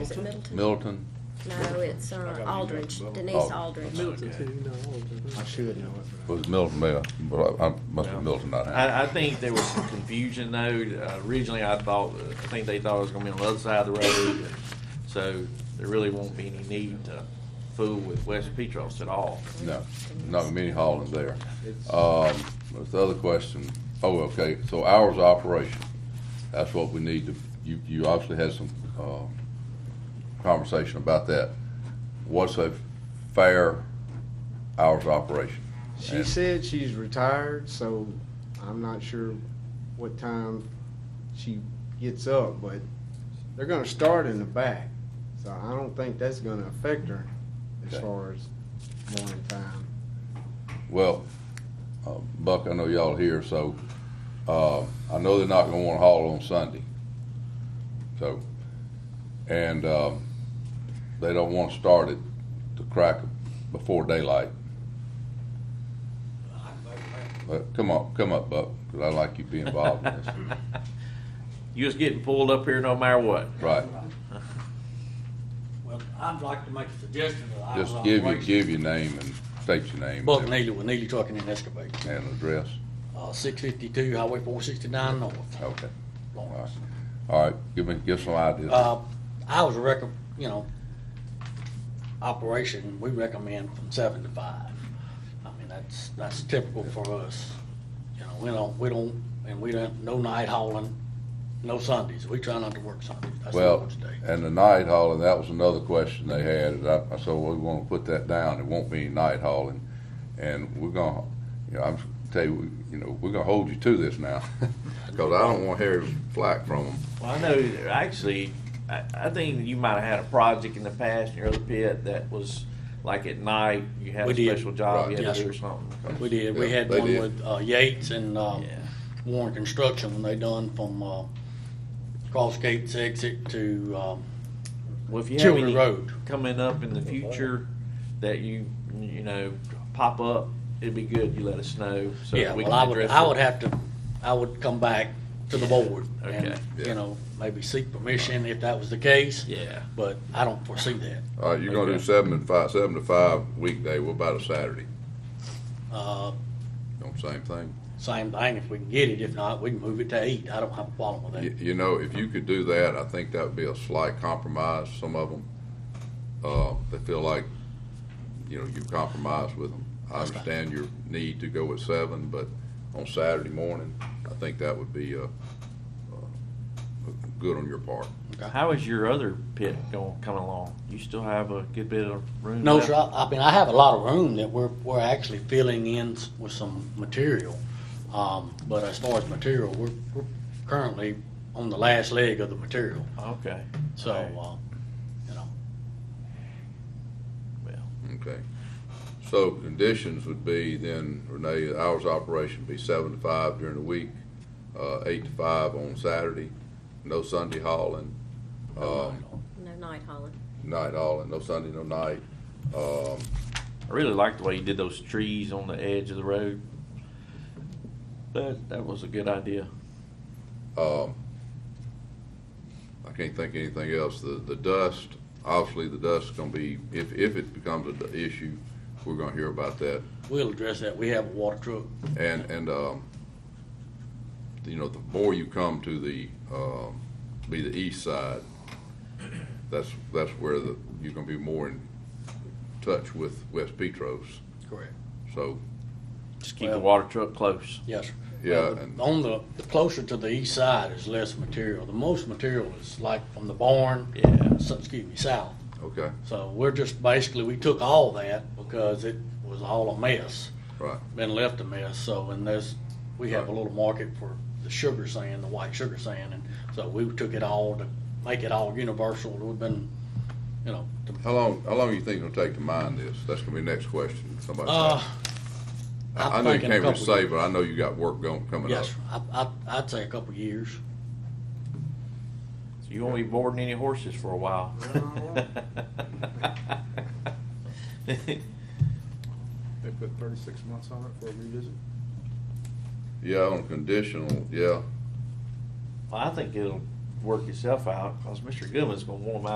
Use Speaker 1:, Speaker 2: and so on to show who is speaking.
Speaker 1: Is it Middleton?
Speaker 2: Middleton.
Speaker 1: No, it's
Speaker 3: I got
Speaker 1: uh,
Speaker 3: an email
Speaker 1: Aldridge,
Speaker 3: from Middleton.
Speaker 1: Denise
Speaker 2: Oh.
Speaker 1: Aldridge.
Speaker 4: Middleton
Speaker 3: Okay.
Speaker 4: too, no, all of them.
Speaker 3: I should know it. but I-
Speaker 2: Was Middleton there? But I, I must
Speaker 3: No.
Speaker 2: have Middleton not had.
Speaker 5: I, I think there was some confusion though. Uh, Originally, I thought, I think they thought it was gonna be on the other side of the road. So there really won't be any need to fool with West Petros at all.
Speaker 2: No, not many hauling there. Um, what's the other question? Oh, okay, so hours of operation, that's what we need to, you, you obviously had some, um, conversation about that. What's a fair hours of operation?
Speaker 3: She
Speaker 2: And-
Speaker 3: said she's retired, so I'm not sure what time she gets up, but they're gonna start in the back. So I don't think that's gonna affect her as
Speaker 2: Okay.
Speaker 3: far as morning time.
Speaker 2: Well, uh, Buck, I know y'all here, so, uh, I know they're not gonna wanna haul on Sunday. So, and, um, they don't wanna start it to crack before daylight. But come on, come up, Buck, cause I like you being involved in this.
Speaker 5: You was getting pulled up here no matter what.
Speaker 2: Right,
Speaker 6: Well, I'd like to make a suggestion that I was
Speaker 2: just
Speaker 6: on
Speaker 2: give you,
Speaker 6: Waste-
Speaker 2: give your name and state your name.
Speaker 6: Buck Neely with Neely Trucking and Excavating,
Speaker 2: And address,
Speaker 6: uh, six fifty-two Highway four sixty-nine North,
Speaker 2: okay, all right.
Speaker 6: Lawrence.
Speaker 2: All right, give me, give some ideas.
Speaker 6: Uh, I was rec, you know, operation, we recommend from seven to five. I mean, that's, that's typical for us. You know, we don't, we don't, and we don't, no night hauling, no Sundays. We try not to work Sundays. That's the
Speaker 2: Well,
Speaker 6: Lord's day.
Speaker 2: and the night hauling, that was another question they had, and I, I said, well, we wanna put that down, it won't be any night hauling. And we're gonna, you know, I'm, tell you, we- you know, we're gonna hold you to this now, cause I don't wanna hear flack from them.
Speaker 5: Well, I know, actually, I, I think you might have had a project in the past in your other pit that was like at night, you had
Speaker 6: We
Speaker 5: a
Speaker 6: did.
Speaker 5: special job you had
Speaker 6: Right.
Speaker 5: to do or
Speaker 6: Yes.
Speaker 5: something.
Speaker 6: We did. We
Speaker 2: Yeah,
Speaker 6: had
Speaker 2: they
Speaker 6: one
Speaker 2: did.
Speaker 6: with uh, Yates and uh,
Speaker 5: Yeah.
Speaker 6: Warren Construction when they done from uh, Cross Gates exit to um,
Speaker 5: Well, if you have
Speaker 6: Children
Speaker 5: any
Speaker 6: Road.
Speaker 5: coming up in the future that you, you know, pop up, it'd be good you let us know. so
Speaker 6: Yeah,
Speaker 5: we
Speaker 6: well,
Speaker 5: can
Speaker 6: I would,
Speaker 5: address
Speaker 6: I
Speaker 5: it.
Speaker 6: would have to, I would come back to the board and,
Speaker 5: Okay.
Speaker 2: Yeah.
Speaker 6: you know, maybe seek permission if that was the case.
Speaker 5: Yeah.
Speaker 6: But I don't foresee that.
Speaker 2: All right, you're gonna do
Speaker 5: Okay.
Speaker 2: seven and five, seven to five weekday, what about a Saturday?
Speaker 6: Uh,
Speaker 2: On same thing?
Speaker 6: Same thing, if we can get it, if not, we can move it to eight. I don't have a problem with
Speaker 2: You,
Speaker 6: that.
Speaker 2: you know, if you could do that, I think that would be a slight compromise, some of them, uh, they feel like, you know, you've compromised with them. I
Speaker 6: That's right.
Speaker 2: understand your need to go at seven, but on Saturday morning, I think that would be, uh, uh, good on your part.
Speaker 5: How is your other pit going, coming along? You still have a good bit of room?
Speaker 6: No,
Speaker 5: left?
Speaker 6: sir, I I mean, I have a lot of room that we're, we're actually filling in s- with some material. Um, But as far as material, we're, we're currently on the last leg of the material.
Speaker 5: Okay.
Speaker 6: So,
Speaker 5: All right.
Speaker 6: um, you know,
Speaker 5: Well,
Speaker 2: Okay. So conditions would be then, Renee, hours of operation be seven to five during the week, uh, eight to five on Saturday, no Sunday hauling.
Speaker 6: no
Speaker 2: um,
Speaker 6: night on.
Speaker 1: No, Night Holland.
Speaker 2: night hauling, no Sunday, no night. Um,
Speaker 6: uh,
Speaker 5: I really like the way you did those trees on the edge of the road. That, that was a good idea.
Speaker 2: um, I can't think of anything else. The, the dust, obviously the dust's gonna be, if, if it becomes an issue, we're gonna hear about that.
Speaker 6: We'll address that. We have a water truck.
Speaker 2: And, and, um, you know, the more you come to the, um, be the east side, that's, that's where the, you're gonna be more in touch with West Petros.
Speaker 6: Correct.
Speaker 2: So,
Speaker 5: Just keep the
Speaker 6: Well-
Speaker 5: water truck close.
Speaker 6: Yes, sir.
Speaker 2: Yeah,
Speaker 6: Well, the-
Speaker 2: and-
Speaker 6: On the, the closer to the east side is less material. The most material is like from the barn,
Speaker 5: Yeah.
Speaker 6: so- excuse me, south.
Speaker 2: okay,
Speaker 6: So we're just basically, we took all that because it was all a mess,
Speaker 2: right,
Speaker 6: been left a mess. So, and there's, we have a little market for the sugar sand, the white sugar sand. And so we took it all to make it all universal. It would've been, you know, to
Speaker 2: How long, how long do you think it'll take to mine this? That's gonna be the next question, somebody.
Speaker 6: Uh,
Speaker 2: I
Speaker 6: I'm
Speaker 2: I know you
Speaker 6: thinking a
Speaker 2: can't really
Speaker 6: couple
Speaker 2: say,
Speaker 6: years.
Speaker 2: but I know you got work going, coming up.
Speaker 6: Yes, I, I, I'd say a couple of years.
Speaker 5: So you won't be boarding any horses for a while.
Speaker 4: They put thirty-six months on it for a revisit?
Speaker 2: Yeah, on conditional, yeah.
Speaker 5: Well, I think it'll work itself out because Mr. Goodman's gonna warm out.